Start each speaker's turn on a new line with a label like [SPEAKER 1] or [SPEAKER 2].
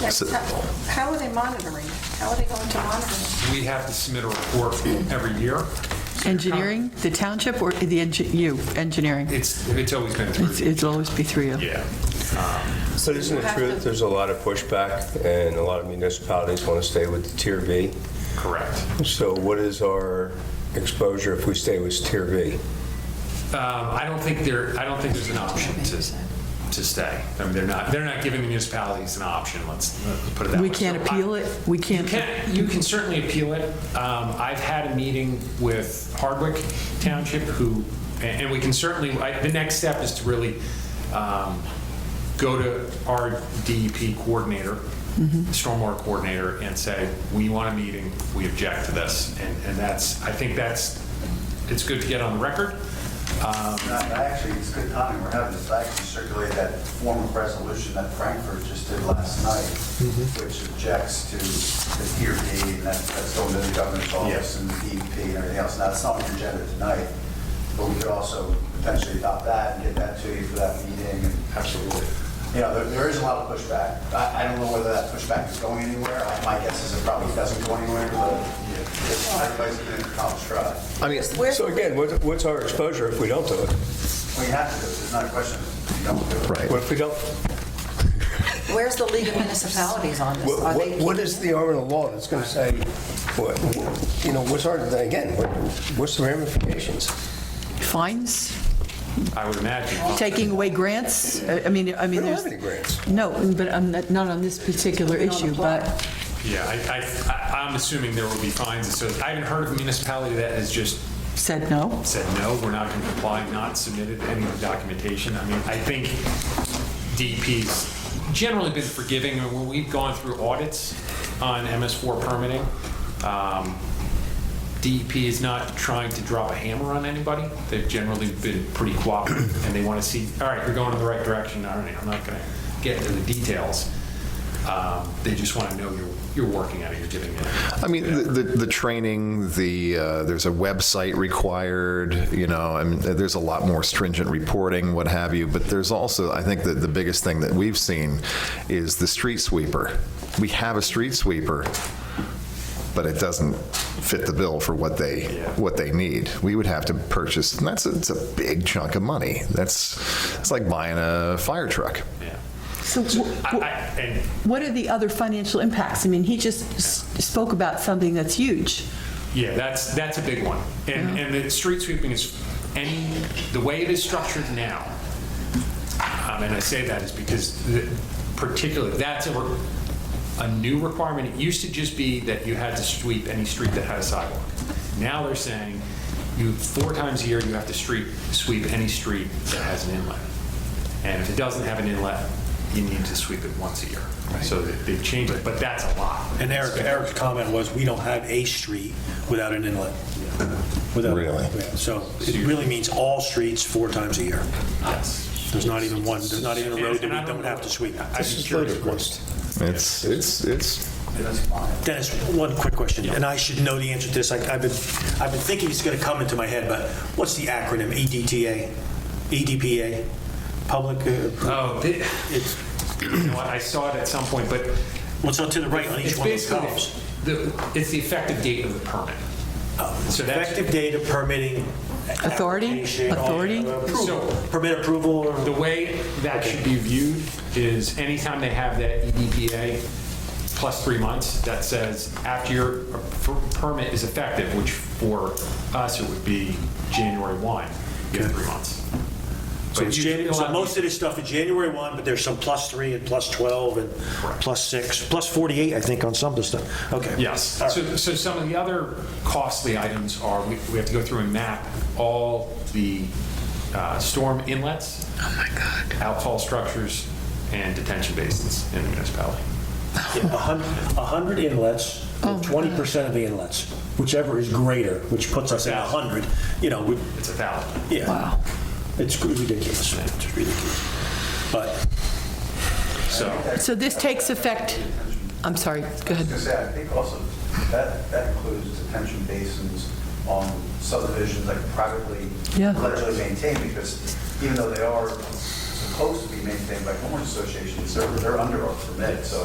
[SPEAKER 1] Like,
[SPEAKER 2] So-
[SPEAKER 1] how- How are they monitoring? How are they going to monitor?
[SPEAKER 3] We have to submit a report every year.
[SPEAKER 4] Engineering, the township or the, engi- you, engineering?
[SPEAKER 3] It's, it's always been
[SPEAKER 4] It's-
[SPEAKER 3] through.
[SPEAKER 4] It'll always be three of you.
[SPEAKER 3] Yeah.
[SPEAKER 5] But isn't it true that there's a lot of pushback and a lot of municipalities want to stay with the Tier B?
[SPEAKER 3] Correct.
[SPEAKER 5] So what is our exposure if we stay with Tier B?
[SPEAKER 3] Um, I don't think there, I don't think there's an option to, to stay. I mean, they're not, they're not giving the municipalities an option, let's let's put it that way.
[SPEAKER 4] We can't
[SPEAKER 3] So I-
[SPEAKER 4] appeal it? We
[SPEAKER 3] You
[SPEAKER 4] can't?
[SPEAKER 3] can, you can certainly appeal it. Um, I've had a meeting with Hardwick Township who, and and we can certainly, I- the next step is to really um, go to our DEP coordinator, stormwater coordinator, and say, we want a meeting, we object to this. And and that's, I think that's, it's good to get on the record. Um,
[SPEAKER 6] Uh, Actually, it's good timing, we're having this, I can circulate that form of resolution that Frankfurt just did last night, which objects to the tier D, and that- that's going to the governor's office and the DEP and everything else. Now, it's not on the agenda tonight, but we could also potentially adopt that and get that to you for that meeting. Absolutely. You know, there- there is a lot of pushback. I I don't know whether that pushback is going anywhere. Uh, My guess is it probably doesn't go anywhere, but yeah, everybody's been in a college try.
[SPEAKER 5] I mean,
[SPEAKER 1] Where-
[SPEAKER 5] so again, what- what's our exposure if we don't do it?
[SPEAKER 6] We have to do it, there's not a question. If you don't do it.
[SPEAKER 5] What if we don't?
[SPEAKER 1] Where's the League of Municipalities on this?
[SPEAKER 5] What-
[SPEAKER 1] Are
[SPEAKER 5] What
[SPEAKER 1] they
[SPEAKER 5] what is the arm of the law that's going to say, what- you know, what's our, again, what- what's the ramifications?
[SPEAKER 4] Fines?
[SPEAKER 3] I would imagine.
[SPEAKER 4] Taking away grants? I I mean, I mean,
[SPEAKER 5] We don't
[SPEAKER 4] there's...
[SPEAKER 5] have any grants.
[SPEAKER 4] No, but I'm not not on this particular
[SPEAKER 1] We don't
[SPEAKER 4] issue,
[SPEAKER 1] apply.
[SPEAKER 4] but
[SPEAKER 3] Yeah, I, I- I, I'm assuming there will be fines. So I haven't heard of a municipality that has just
[SPEAKER 4] said no.
[SPEAKER 3] said, no, we're not going to comply, not submitted any documentation. I mean, I think DEP's generally been forgiving. I mean, When we've gone through audits on MS4 permitting, um, DEP is not trying to drop a hammer on anybody. They've generally been pretty cooperative, and they want to see, all right, you're going in the right direction, all right, I'm not going to get into the details. Um, They just want to know you're, you're working at it, you're giving it.
[SPEAKER 7] I mean, the, the, the training, the uh, there's a website required. You know, I mean, there's a lot more stringent reporting, what have you. But there's also, I think that the biggest thing that we've seen is the street sweeper. We have a street sweeper, but it doesn't fit the bill for what they what they need. We would have to purchase, and that's a, it's a big chunk of money. That's it's like buying a fire truck.
[SPEAKER 3] Yeah.
[SPEAKER 4] So wh-
[SPEAKER 3] I- I- And
[SPEAKER 4] what are the other financial impacts? I mean, he just s- spoke about something that's huge.
[SPEAKER 3] Yeah, that's, that's a big one. And, and the street sweeping is, any, the way it is structured now, um, and I say that is because the- particularly, that's a, re- a new requirement. It used to just be that you had to sweep any street that had a sidewalk. Now they're saying you, four times a year, you have to street, sweep any street that has an inlet. And if it doesn't have an inlet, you need to sweep it once a year. So they- they've changed it, but that's a lot.
[SPEAKER 8] And Eric, Eric's comment was, we don't have a street without an inlet. Without-
[SPEAKER 7] Really?
[SPEAKER 8] Yeah, So it really means all streets four times a year.
[SPEAKER 3] Yes.
[SPEAKER 8] There's not even one, there's not even a road that we don't have to sweep.
[SPEAKER 3] I'd be curious what-
[SPEAKER 7] It's it's it's
[SPEAKER 8] Dennis, one quick question, and I should know the answer to this. I- I've been, I've been thinking it's going to come into my head, but what's the acronym? E EDTA? E EDPA? Public, uh,
[SPEAKER 3] Oh, thi- it's, you know what, I saw it at some point, but
[SPEAKER 8] what's on to the right on
[SPEAKER 3] it's
[SPEAKER 8] each one of those
[SPEAKER 3] basically,
[SPEAKER 8] columns?
[SPEAKER 3] the- it's the effective date of the permit. So that's-
[SPEAKER 8] Oh, Effective date of permitting.
[SPEAKER 4] Authority?
[SPEAKER 8] application,
[SPEAKER 4] Authority?
[SPEAKER 8] approval.
[SPEAKER 3] So-
[SPEAKER 8] Permit approval or?
[SPEAKER 3] The way that should be viewed is anytime they have that E EDPA plus three months, that says after your per- permit is effective, which for us, it would be January 1, you have three months.
[SPEAKER 8] So
[SPEAKER 3] But
[SPEAKER 8] it's
[SPEAKER 3] you-
[SPEAKER 8] January,
[SPEAKER 3] a lot
[SPEAKER 8] so
[SPEAKER 3] of
[SPEAKER 8] most of this stuff is January 1, but there's some plus 3 and plus 12 and plus 6, plus 48, I think, on some of the stuff. Okay.
[SPEAKER 3] Yes.
[SPEAKER 8] All right.
[SPEAKER 3] So, so some of the other costly items are, we we have to go through and map all the uh, storm inlets. Oh, my God. Outfall structures and detention basins in the municipality.
[SPEAKER 8] Yeah, 100 100 inlets, 20% of the inlets, whichever is greater, which puts us at 100, you know, we,
[SPEAKER 3] It's a thousand.
[SPEAKER 8] yeah. Wow. It's ridiculous, man, it's ridiculous. But
[SPEAKER 3] So.
[SPEAKER 4] So this takes effect, I'm sorry, go ahead.
[SPEAKER 6] I was gonna say, I think also, that, that includes detention basins on subdivisions like privately,
[SPEAKER 4] Yeah.
[SPEAKER 6] allegedly maintained, because even though they are supposed to be maintained by homeowners associations, they're, they're under our permit, so